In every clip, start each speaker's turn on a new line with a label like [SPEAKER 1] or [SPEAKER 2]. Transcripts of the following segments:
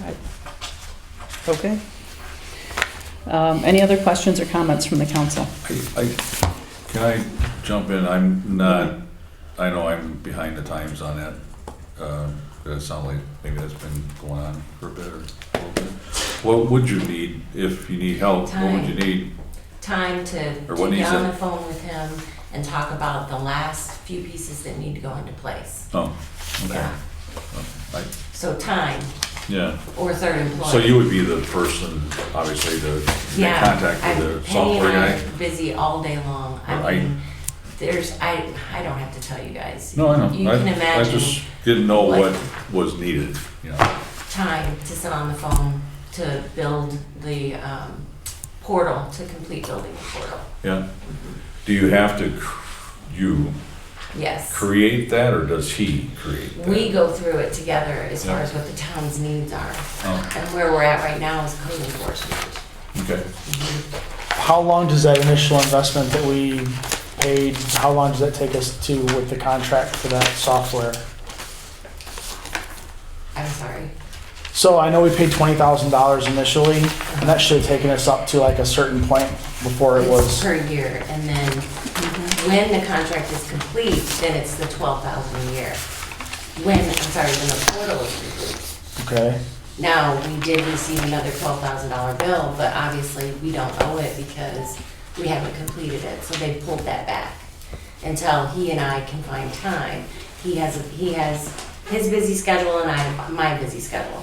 [SPEAKER 1] Right. Okay. Um, Any other questions or comments from the council?
[SPEAKER 2] I- I- Can I jump in? I'm not, I know I'm behind the times on that. Uh, Does it sound like maybe that's been going on for a bit or a little bit? What would you need if you need help? What would you need?
[SPEAKER 3] time to, to
[SPEAKER 2] Or
[SPEAKER 3] get
[SPEAKER 2] what
[SPEAKER 3] on
[SPEAKER 2] needs it?
[SPEAKER 3] the phone with him and talk about the last few pieces that need to go into place.
[SPEAKER 2] Oh, okay.
[SPEAKER 3] Yeah,
[SPEAKER 2] I-
[SPEAKER 3] so time
[SPEAKER 2] Yeah,
[SPEAKER 3] or third employee.
[SPEAKER 2] so you would be the person, obviously, to make
[SPEAKER 3] Yeah,
[SPEAKER 2] contact
[SPEAKER 3] I'm-
[SPEAKER 2] with the
[SPEAKER 3] Penny and
[SPEAKER 2] software
[SPEAKER 3] I
[SPEAKER 2] guy?
[SPEAKER 3] are Busy all day long. I
[SPEAKER 2] Right.
[SPEAKER 3] mean, there's, I, I don't have to tell you guys.
[SPEAKER 2] No, I know.
[SPEAKER 3] You
[SPEAKER 2] I-
[SPEAKER 3] can
[SPEAKER 2] I
[SPEAKER 3] imagine
[SPEAKER 2] just didn't know
[SPEAKER 3] what-
[SPEAKER 2] what was needed, you know?
[SPEAKER 3] time to sit on the phone to build the, um, portal, to complete building the portal.
[SPEAKER 2] Yeah. Do you have to, cr- you
[SPEAKER 3] Yes.
[SPEAKER 2] create that or does he create that?
[SPEAKER 3] We go through it together as far
[SPEAKER 2] Yeah.
[SPEAKER 3] as what the town's needs are.
[SPEAKER 2] Oh,
[SPEAKER 3] And where we're at right now is code enforcement.
[SPEAKER 2] okay.
[SPEAKER 4] How long does that initial investment that we paid, how long does that take us to with the contract for that software?
[SPEAKER 3] I'm sorry.
[SPEAKER 4] So I know we paid twenty thousand dollars initially, and that should have taken us up to like a certain point before it
[SPEAKER 3] It's
[SPEAKER 4] was.
[SPEAKER 3] per year, and then when the contract is complete, then it's the twelve thousand a year. When, I'm sorry, when the portal is complete.
[SPEAKER 4] Okay,
[SPEAKER 3] Now, we did receive another twelve thousand dollar bill, but obviously, we don't owe it because we haven't completed it, so they pulled that back. Until he and I can find time. He has, he has his busy schedule and I have my busy schedule.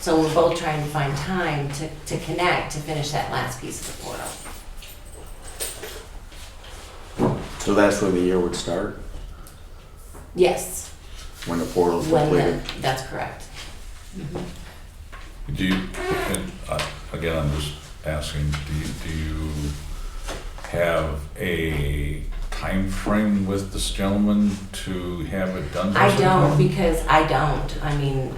[SPEAKER 3] So we're both trying to find time to, to connect, to finish that last piece of the portal.
[SPEAKER 5] So that's when the year would start,
[SPEAKER 3] Yes.
[SPEAKER 5] when the portal's
[SPEAKER 3] When
[SPEAKER 5] completed?
[SPEAKER 3] the, that's correct.
[SPEAKER 2] Do you, and, uh, again, I'm just asking, do you, do you have a time frame with this gentleman to have it done? by
[SPEAKER 3] I don't,
[SPEAKER 2] sometime?
[SPEAKER 3] because I don't, I mean,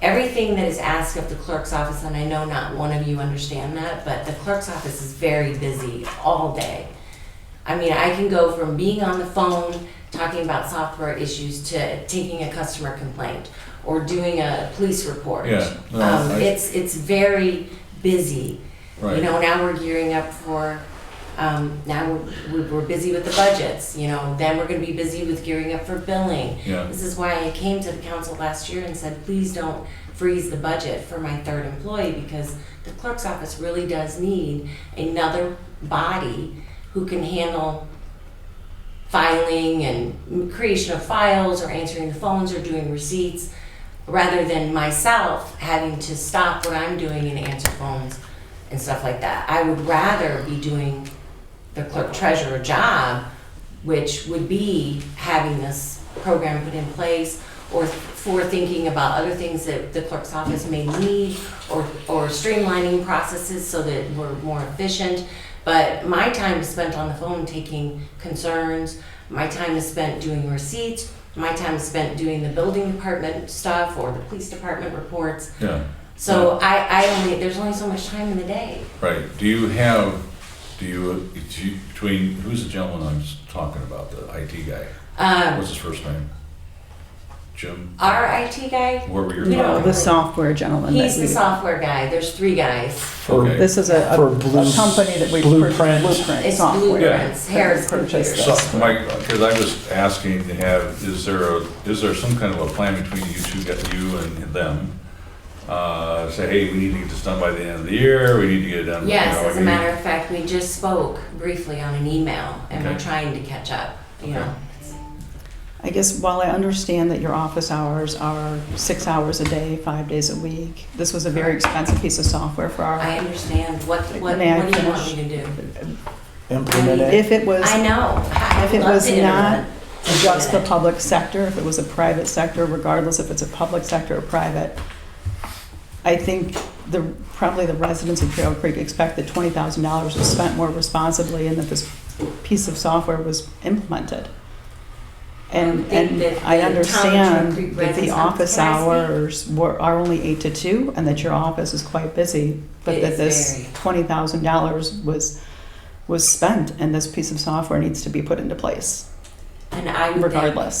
[SPEAKER 3] everything that is asked of the clerk's office, and I know not one of you understand that, but the clerk's office is very busy all day. I mean, I can go from being on the phone, talking about software issues, to taking a customer complaint, or doing a police report.
[SPEAKER 2] Yeah, no,
[SPEAKER 3] Um,
[SPEAKER 2] I-
[SPEAKER 3] it's, it's very busy. You
[SPEAKER 2] Right,
[SPEAKER 3] know, now we're gearing up for, um, now we're, we're busy with the budgets, you know, then we're gonna be busy with gearing up for billing.
[SPEAKER 2] yeah,
[SPEAKER 3] This is why I came to the council last year and said, please don't freeze the budget for my third employee because the clerk's office really does need another body who can handle filing and creation of files or answering the phones or doing receipts rather than myself having to stop what I'm doing and answer phones and stuff like that. I would rather be doing the clerk treasurer job, which would be having this program put in place or for thinking about other things that the clerk's office may need or, or streamlining processes so that we're more efficient. But my time is spent on the phone taking concerns, my time is spent doing receipts, my time is spent doing the building department stuff or the police department reports.
[SPEAKER 2] yeah,
[SPEAKER 3] So I, I only, there's only so much time in the day.
[SPEAKER 2] right. Do you have, do you, do you- between, who's the gentleman I'm s- talking about, the IT guy?
[SPEAKER 3] Um,
[SPEAKER 2] What's his first name? Jim?
[SPEAKER 3] our IT guy,
[SPEAKER 2] Whoever you're
[SPEAKER 3] No,
[SPEAKER 2] talking
[SPEAKER 1] The
[SPEAKER 2] about.
[SPEAKER 1] software gentleman that
[SPEAKER 3] he's the
[SPEAKER 1] we,
[SPEAKER 3] software guy. There's three guys.
[SPEAKER 2] Okay.
[SPEAKER 1] this is a, a-
[SPEAKER 4] For
[SPEAKER 1] a
[SPEAKER 4] Blue-
[SPEAKER 1] company that we. pur-
[SPEAKER 4] Blueprint.
[SPEAKER 1] Blueprint
[SPEAKER 3] It's
[SPEAKER 1] software.
[SPEAKER 3] blueprints, Harris
[SPEAKER 1] That we purchased.
[SPEAKER 3] Computers.
[SPEAKER 2] So, Mike, because I was asking to have, is there a, is there some kind of a plan between you two, get you and them? Uh, say, hey, we need to get this done by the end of the year, we need to get it done. you know,
[SPEAKER 3] Yes,
[SPEAKER 2] I
[SPEAKER 3] as a
[SPEAKER 2] mean-
[SPEAKER 3] matter of fact, we just spoke briefly on an email and we're
[SPEAKER 2] Okay.
[SPEAKER 3] trying to catch up, you
[SPEAKER 2] Okay.
[SPEAKER 3] know.
[SPEAKER 1] I guess while I understand that your office hours are six hours a day, five days a week, this was a very expensive piece of software for our,
[SPEAKER 3] I understand. What, what, what do
[SPEAKER 1] May I
[SPEAKER 3] you want
[SPEAKER 1] finish?
[SPEAKER 3] me to do?
[SPEAKER 4] implemented.
[SPEAKER 1] if it was.
[SPEAKER 3] I know. I
[SPEAKER 1] If
[SPEAKER 3] would
[SPEAKER 1] it
[SPEAKER 3] love
[SPEAKER 1] was
[SPEAKER 3] to
[SPEAKER 1] not
[SPEAKER 3] implement it.
[SPEAKER 1] just the public sector, if it was a private sector, regardless if it's a public sector or private, I think the, probably the residents of Trail Creek expect that twenty thousand dollars was spent more responsibly and that this piece of software was implemented. And,
[SPEAKER 3] I think
[SPEAKER 1] and
[SPEAKER 3] that
[SPEAKER 1] I
[SPEAKER 3] the town of Trail
[SPEAKER 1] understand
[SPEAKER 3] Creek
[SPEAKER 1] that the
[SPEAKER 3] residents-
[SPEAKER 1] office
[SPEAKER 3] can I speak?
[SPEAKER 1] hours were, are only eight to two and that your office is quite busy, but
[SPEAKER 3] It
[SPEAKER 1] that
[SPEAKER 3] is
[SPEAKER 1] this
[SPEAKER 3] very.
[SPEAKER 1] twenty thousand dollars was, was spent and this piece of software needs to be put into place
[SPEAKER 3] And I would think
[SPEAKER 1] regardless.